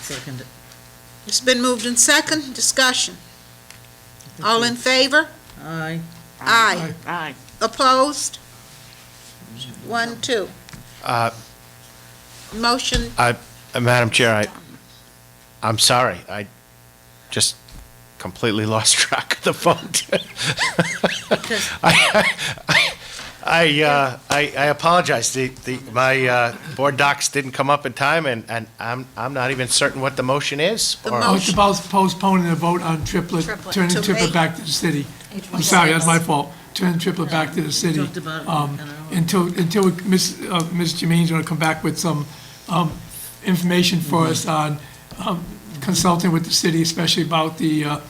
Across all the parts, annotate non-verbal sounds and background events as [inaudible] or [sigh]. second it. It's been moved in second, discussion. All in favor? Aye. Aye. Aye. Opposed? One, two. Uh, Motion, Uh, Madam Chair, I, I'm sorry, I just completely [laughs] lost track of the vote. I, I- I, uh, I I apologize, the, the, my uh, board docs didn't come up in time, and, and I'm, I'm not even certain what the motion is. The or- mo- Oh, it's about postponing the vote on triplet, Triplet. turning To triplet May- back to the city. I'm April sorry, that's my 26th. fault. Turning triplet back to the city. talked about it um, an hour. Until, until we- Ms. uh, Ms. Jermaine's going to come back with some um, information for us on um, consulting with the city, especially about the, uh,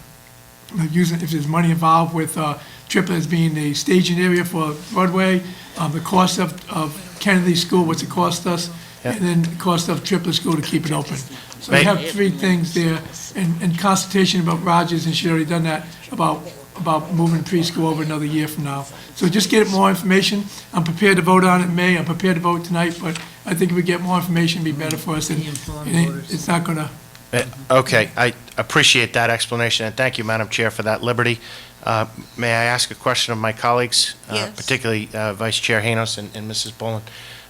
using, if there's money involved with uh, triplet as being the staging area for Broadway, um, the cost of, of Kennedy School, what's it cost us, and then the cost of triplet school to keep it open. So we Right. have three things there, and, and consultation about Rogers, and she's already done that, about, about moving preschool over another year from now. So just get more information. I'm prepared to vote on it in May, I'm prepared to vote tonight, but I think if we get more information, it'd be better for us, and Be informed and it- voters. it's not gonna, Uh, Okay, I appreciate that explanation, and thank you, Madam Chair, for that liberty. Uh, May I ask a question of my colleagues? uh, Yes. Particularly uh, Vice Chair Hanos and and Mrs. Boland.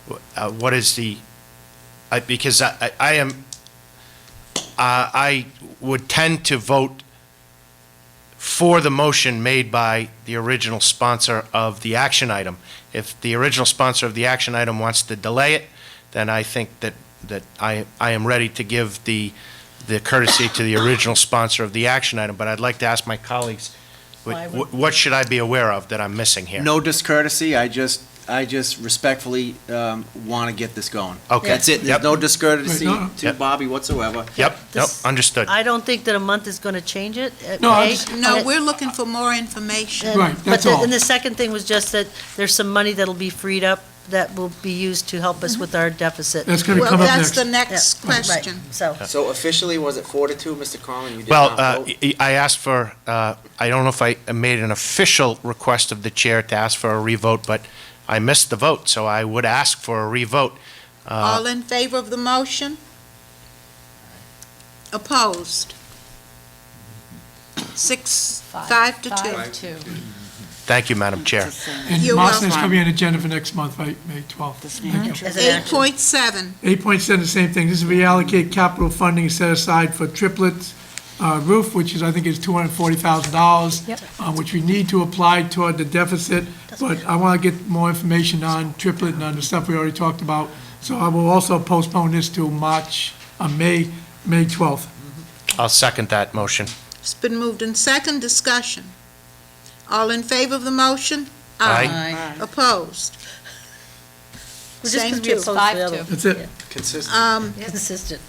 Wh- uh, What is the, I- because I I- I am, uh, I would tend to vote for the motion made by the original sponsor of the action item. If the original sponsor of the action item wants to delay it, then I think that, that I, I am ready to give the, the courtesy to the original sponsor of the action item, but I'd like to ask my colleagues, what, what should I be aware of that I'm missing here? No discourtesy, I just, I just respectfully want to get this going. Okay. That's it, Yep. there's no discourtesy Right, no, no. to Yep. Bobby whatsoever. Yep, nope, This- understood. I don't think that a month is going to change it. uh, No, I May. just- no, But- we're looking for more information. and- Right, that's But, the- all. and the second thing was just that there's some money that'll be freed up that will be used to help us with our deficit. that's gonna Well, come up next. that's the next Yeah, right, question. So, So officially, was it four to two, Mr. Conlon? You did Well, not uh, vote? I I asked for, uh, I don't know if I made an official request of the chair to ask for a revote, but I missed the vote, so I would ask for a revote. Uh, All in favor of the motion? Opposed? Six, five to two. Five to two. Thank you, Madam Chair. And You're Marston is welcome. coming on the agenda for next month, right, May 12th. Thank you. as an Eight action. point seven, 8.7, the same thing, this is reallocate capital funding set aside for triplets uh, roof, which is, I think is $240,000. Yep. uh, Which we need to apply toward the deficit, but I want to get more information on triplet and on the stuff we already talked about. So I will also postpone this to March, uh, May, May 12th. I'll second that motion. it's been moved in second, discussion. All in favor of the motion? Aye. Aye. Opposed? Well, just 'cause Same we two. opposed the Five other to. one. That's it, Consistent. Uh, Um, Consistent.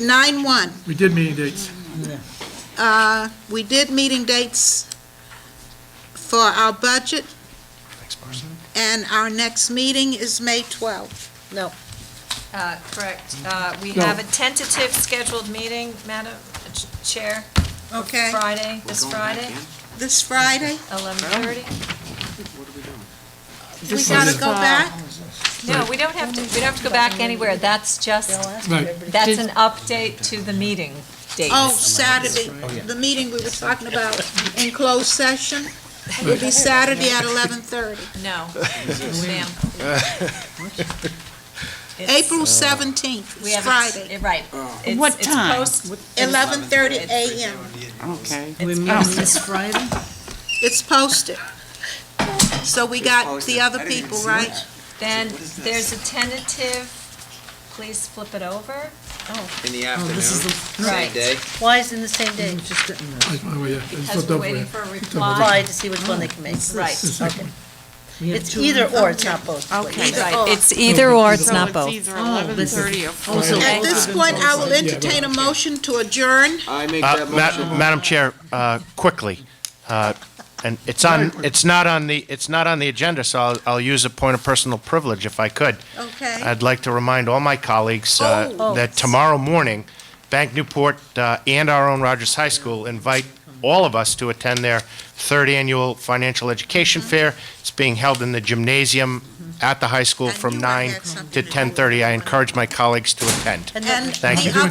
nine one. we did meeting dates. Uh, we did meeting dates for our budget, Thanks, Marcy. and our next meeting is May 12th. Uh, Correct. Uh, We No. have a tentative scheduled meeting, Madam Chair, Okay, Friday, We're this going back Friday, in? this Friday? 11:30. What are we doing? We gotta go back? No, we don't have to, we don't have to go back anywhere. That's just, Right, that's an update to the meeting date. Oh, Saturday, the meeting we were talking about in closed session will be Saturday at 11:30. No, ma'am. [laughs] It's- April 17th, we it's have a- Friday, Right. Oh. It's- What it's time? post- 11:30 a.m. Okay. We meet Mm-hmm. this Friday? It's posted. So we got the other people, right? Then there's a tentative, please flip it over. In the Oh, afternoon, this is the, same day? Why is it in the same day? I'm Mm, just getting that. That's my way, yeah. I just Because flipped we're over waiting it. for a Apply reply. to see which one they Oh, can make. Right, The second We have It's two- either or, it's not both. Okay. right. It's either or, it's not both. either eleven thirty or four. so- At this point, I will entertain a motion to adjourn. I make Uh, that Ma- motion. Madam Chair, uh, quickly, uh, and it's on, it's not on the, it's not on the agenda, so I'll, I'll use a point of personal privilege if I could. Okay. I'd like to remind all my colleagues uh, Oh. that tomorrow morning, Bank Newport uh, and our own Rogers High School invite all of us to attend their third annual financial education Mm-hmm. fair. It's being held in the gymnasium at the high school I from knew I had nine something to to do with 10:30. I it. encourage my colleagues to attend. And then- And Thank the you. other